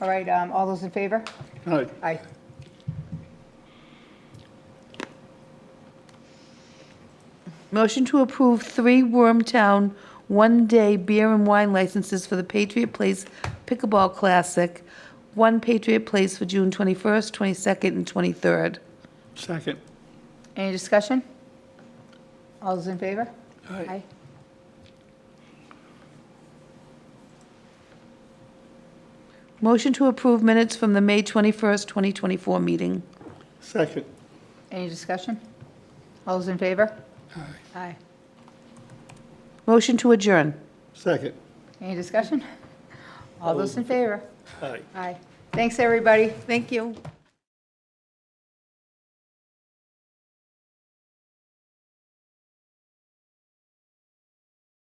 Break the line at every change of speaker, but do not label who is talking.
All right, um, all those in favor?
All right,
Aye.
Motion to approve three Wormtown one-day beer and wine licenses for the Patriot Place Pickleball Classic, one Patriot Place for June 21st, 22nd, and 23rd.
second.
Any discussion? All those in favor?
All right.
Motion to approve minutes from the May 21st, 2024 meeting.
Second.
Any discussion? All those in favor?
Aye.
Aye.
Motion to adjourn.
Second.
Any discussion? All those in favor?
Aye.
Aye. Thanks, everybody.
Thank you.